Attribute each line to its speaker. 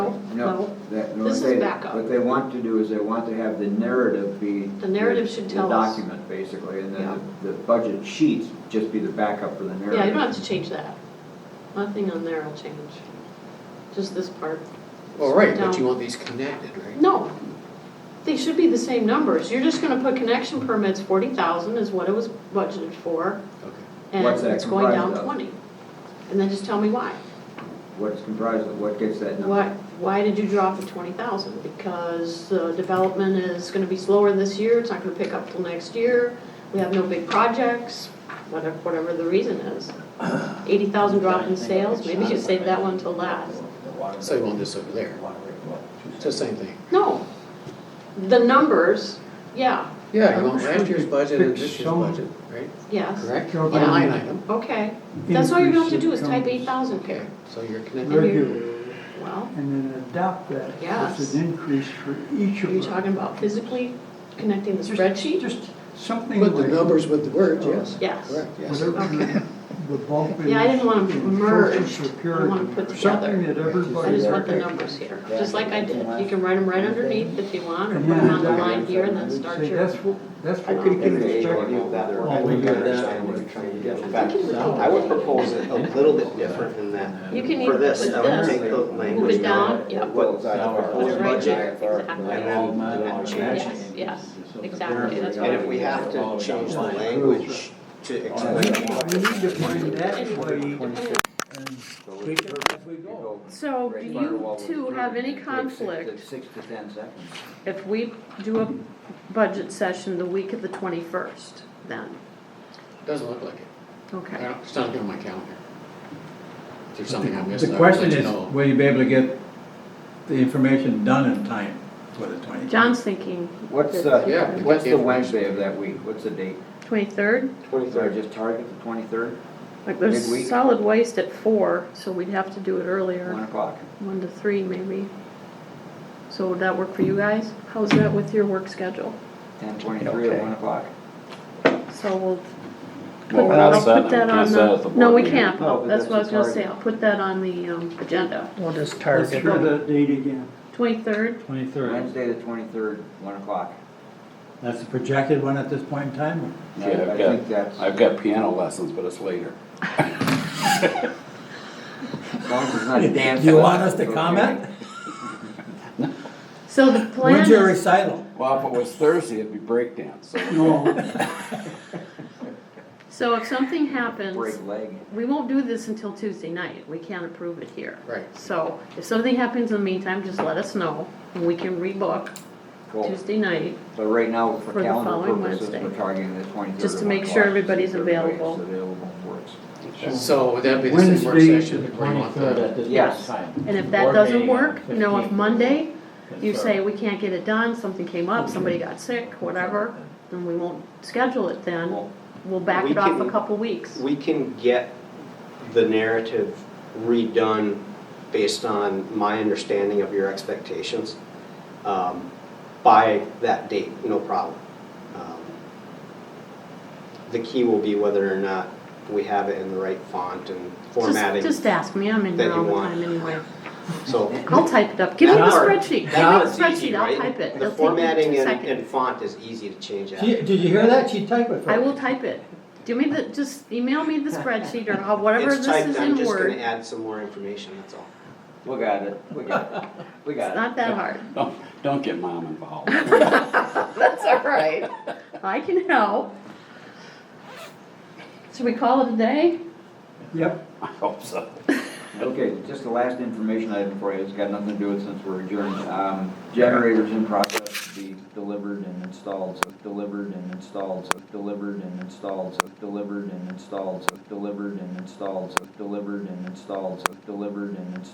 Speaker 1: Oh,
Speaker 2: No,
Speaker 1: No.
Speaker 2: that, no,
Speaker 1: This
Speaker 2: what
Speaker 1: is
Speaker 2: they-
Speaker 1: backup.
Speaker 2: What they want to do is they want to have the narrative be.
Speaker 1: The narrative should
Speaker 2: the
Speaker 1: tell us.
Speaker 2: document, basically, and
Speaker 1: Yeah.
Speaker 2: then the the budget sheets just be the backup for the narrative.
Speaker 1: Yeah, you don't have to change that. Nothing on there will change. Just this part.
Speaker 3: Well, Oh, right, but
Speaker 1: No.
Speaker 3: you want these connected, right?
Speaker 1: No, they should be the same numbers. You're just gonna put connection permits, forty thousand is what it was budgeted for,
Speaker 3: Okay.
Speaker 1: and
Speaker 2: What's that
Speaker 1: it's going down
Speaker 2: comprised of?
Speaker 1: twenty. And then just tell me why.
Speaker 2: What it's comprised of, what gets that number?
Speaker 1: Why, why did you drop the twenty thousand? Because the development is gonna be slower this year, it's not gonna pick up till next year, we have no big projects, whatever, whatever the reason is. Eighty thousand drop in sales, maybe you save that one till last.
Speaker 3: So you want this over there. It's the same thing.
Speaker 1: No, the numbers, yeah,
Speaker 3: Yeah, you want last year's budget and this
Speaker 4: Fix
Speaker 3: year's
Speaker 4: some-
Speaker 3: budget, right?
Speaker 1: yes,
Speaker 3: Correct?
Speaker 4: Yeah.
Speaker 3: On a line item.
Speaker 1: okay. That's all you're gonna have to do is type eight
Speaker 4: Increase
Speaker 1: thousand
Speaker 3: Okay,
Speaker 1: here.
Speaker 3: so you're
Speaker 1: And
Speaker 3: connected.
Speaker 1: you're-
Speaker 4: Regular,
Speaker 1: Well,
Speaker 4: and then adopt that.
Speaker 1: Yes.
Speaker 4: As an increase for each
Speaker 1: are
Speaker 4: of
Speaker 1: you
Speaker 4: them.
Speaker 1: talking about physically connecting the
Speaker 4: Just-
Speaker 1: spreadsheet?
Speaker 4: Just something like.
Speaker 3: Put the numbers with the words, yes.
Speaker 1: Yes.
Speaker 3: Correct, yes.
Speaker 4: Whatever
Speaker 1: Okay.
Speaker 4: the bulk is.
Speaker 1: Yeah, I didn't want 'em
Speaker 4: in
Speaker 1: merged.
Speaker 4: social
Speaker 1: I
Speaker 4: security,
Speaker 1: wanna put
Speaker 4: or Something
Speaker 1: together.
Speaker 4: that everybody.
Speaker 1: I just want the numbers here, just like I did. You can write them right underneath if you want, or put
Speaker 4: And
Speaker 1: them on the
Speaker 4: then-
Speaker 1: line here and then start
Speaker 4: Say,
Speaker 1: your.
Speaker 4: that's what, that's
Speaker 5: I
Speaker 4: what we
Speaker 5: could
Speaker 4: can
Speaker 5: give it
Speaker 4: expect.
Speaker 5: a that work. I
Speaker 4: all
Speaker 5: would
Speaker 4: together.
Speaker 5: understand what you're trying to do. In fact,
Speaker 1: think it would help.
Speaker 5: I would propose it a little bit different than that.
Speaker 1: You can either
Speaker 5: For
Speaker 1: put
Speaker 5: this, I would
Speaker 1: this,
Speaker 5: take the
Speaker 1: move
Speaker 5: language.
Speaker 1: it down, yep,
Speaker 5: What the
Speaker 1: Right
Speaker 5: proposed budget.
Speaker 1: there,
Speaker 5: And
Speaker 1: exactly.
Speaker 5: then,
Speaker 1: Yes, yes, exactly, that's
Speaker 5: and
Speaker 1: what
Speaker 5: if we have to change the language to
Speaker 4: We
Speaker 5: explain.
Speaker 4: need we need to find that way
Speaker 1: I.
Speaker 4: and
Speaker 1: So do you two have any conflict
Speaker 2: Six to ten seconds.
Speaker 1: if we do a budget session the week of the twenty-first then?
Speaker 3: Doesn't look like it. I
Speaker 1: Okay.
Speaker 3: don't, it's not on my calendar. If there's something I missed,
Speaker 6: The
Speaker 3: I will
Speaker 6: question
Speaker 3: let you
Speaker 6: is,
Speaker 3: know.
Speaker 6: will you be able to get the information done in time for the twenty?
Speaker 1: John's thinking.
Speaker 2: What's uh, the,
Speaker 3: Yeah. we
Speaker 2: what's
Speaker 3: get
Speaker 2: the
Speaker 3: the-
Speaker 2: Wednesday of that week? What's the date?
Speaker 1: Twenty-third?
Speaker 2: Or just target the twenty-third,
Speaker 1: Like
Speaker 2: Midweek.
Speaker 1: there's solid waste at four, so we'd have to do it
Speaker 2: one
Speaker 1: earlier,
Speaker 2: o'clock.
Speaker 1: one to three maybe. So would that work for you guys? How's that with your work schedule?
Speaker 2: Ten twenty-three at
Speaker 3: Okay.
Speaker 2: one o'clock.
Speaker 1: So we'll
Speaker 7: Well, we're not
Speaker 1: I'll
Speaker 7: set,
Speaker 1: put
Speaker 7: we
Speaker 1: that
Speaker 7: can't
Speaker 1: on
Speaker 7: set at the
Speaker 1: the,
Speaker 7: board
Speaker 1: no, we
Speaker 7: meeting.
Speaker 1: can't,
Speaker 2: No, but
Speaker 1: that's what I was
Speaker 2: that's
Speaker 1: gonna
Speaker 2: the
Speaker 1: say, I'll put that on the, um, agenda.
Speaker 8: We'll just
Speaker 4: let's
Speaker 8: target
Speaker 4: try that date again.
Speaker 1: Twenty-third,
Speaker 6: Twenty-third,
Speaker 2: Wednesday, the twenty-third, one o'clock.
Speaker 6: that's the projected one at this point in time?
Speaker 2: And
Speaker 7: Yeah,
Speaker 2: I- I think
Speaker 7: I've got,
Speaker 2: that's,
Speaker 7: I've got piano lessons, but it's later.
Speaker 2: as long as it's not dance.
Speaker 6: You want us to
Speaker 2: okay.
Speaker 6: comment?
Speaker 1: so the plan
Speaker 6: When's your
Speaker 1: is,
Speaker 6: recital?
Speaker 7: Well, if it was Thursday, it'd be breakdance, so.
Speaker 4: No,
Speaker 1: so if something happens,
Speaker 2: Break leg.
Speaker 1: we won't do this until Tuesday night, we can't approve it here.
Speaker 3: Right.
Speaker 1: So, if something happens in the meantime, just let us know, and we can rebook
Speaker 2: Cool.
Speaker 1: Tuesday night.
Speaker 2: So right now,
Speaker 1: For
Speaker 2: for
Speaker 1: the
Speaker 2: calendar
Speaker 1: following
Speaker 2: purposes,
Speaker 1: Wednesday.
Speaker 2: we're targeting the twenty-third.
Speaker 1: Just to make sure everybody's available.
Speaker 3: So would that be the same work
Speaker 4: Wednesday, the
Speaker 3: session where you want
Speaker 4: twenty-third
Speaker 3: the,
Speaker 4: at this
Speaker 2: Yes.
Speaker 4: time.
Speaker 1: And if that doesn't work, no, if Monday, you say, we can't get it done, something came up, somebody got sick, whatever, then we won't schedule it then,
Speaker 2: Well,
Speaker 1: we'll back
Speaker 5: we
Speaker 1: it off a
Speaker 5: can-
Speaker 1: couple weeks.
Speaker 5: We can get the narrative redone based on my understanding of your expectations um, by that date, no problem. Um, The key will be whether or not we have it in the right font and
Speaker 1: Just-
Speaker 5: formatting.
Speaker 1: Just ask me, I'm in
Speaker 5: that
Speaker 1: here
Speaker 5: you
Speaker 1: all the
Speaker 5: want.
Speaker 1: time anyway.
Speaker 5: So
Speaker 1: I'll type it up, give me the
Speaker 5: That part-
Speaker 1: spreadsheet, give me the
Speaker 5: that part's easy,
Speaker 1: spreadsheet, I'll
Speaker 5: right?
Speaker 1: type it,
Speaker 5: The
Speaker 1: it'll take me
Speaker 5: formatting
Speaker 1: two
Speaker 5: and- and
Speaker 1: seconds.
Speaker 5: font is easy to change out.
Speaker 6: She- Did you hear that? She typed it for
Speaker 1: I
Speaker 6: us.
Speaker 1: will type it, do me the, just email me the spreadsheet or how- whatever
Speaker 5: It's
Speaker 1: this
Speaker 5: typed,
Speaker 1: is
Speaker 5: I'm
Speaker 1: in
Speaker 5: just gonna
Speaker 1: Word,
Speaker 5: add some more information, that's all.
Speaker 2: We got it, we got it, we
Speaker 1: it's
Speaker 2: got it.
Speaker 1: not that hard,
Speaker 7: Don't, don't get mom involved.
Speaker 1: that's all right, I can help. Should we call it a day?
Speaker 4: Yep,
Speaker 7: I hope so.
Speaker 2: Okay, just the last information item for you, it's got nothing to do with since we're adjourned. Um, Generators in process to be delivered and installed, so delivered and installed, so delivered and installed, so delivered and installed, so delivered and installed, so delivered and installed, so delivered and installed.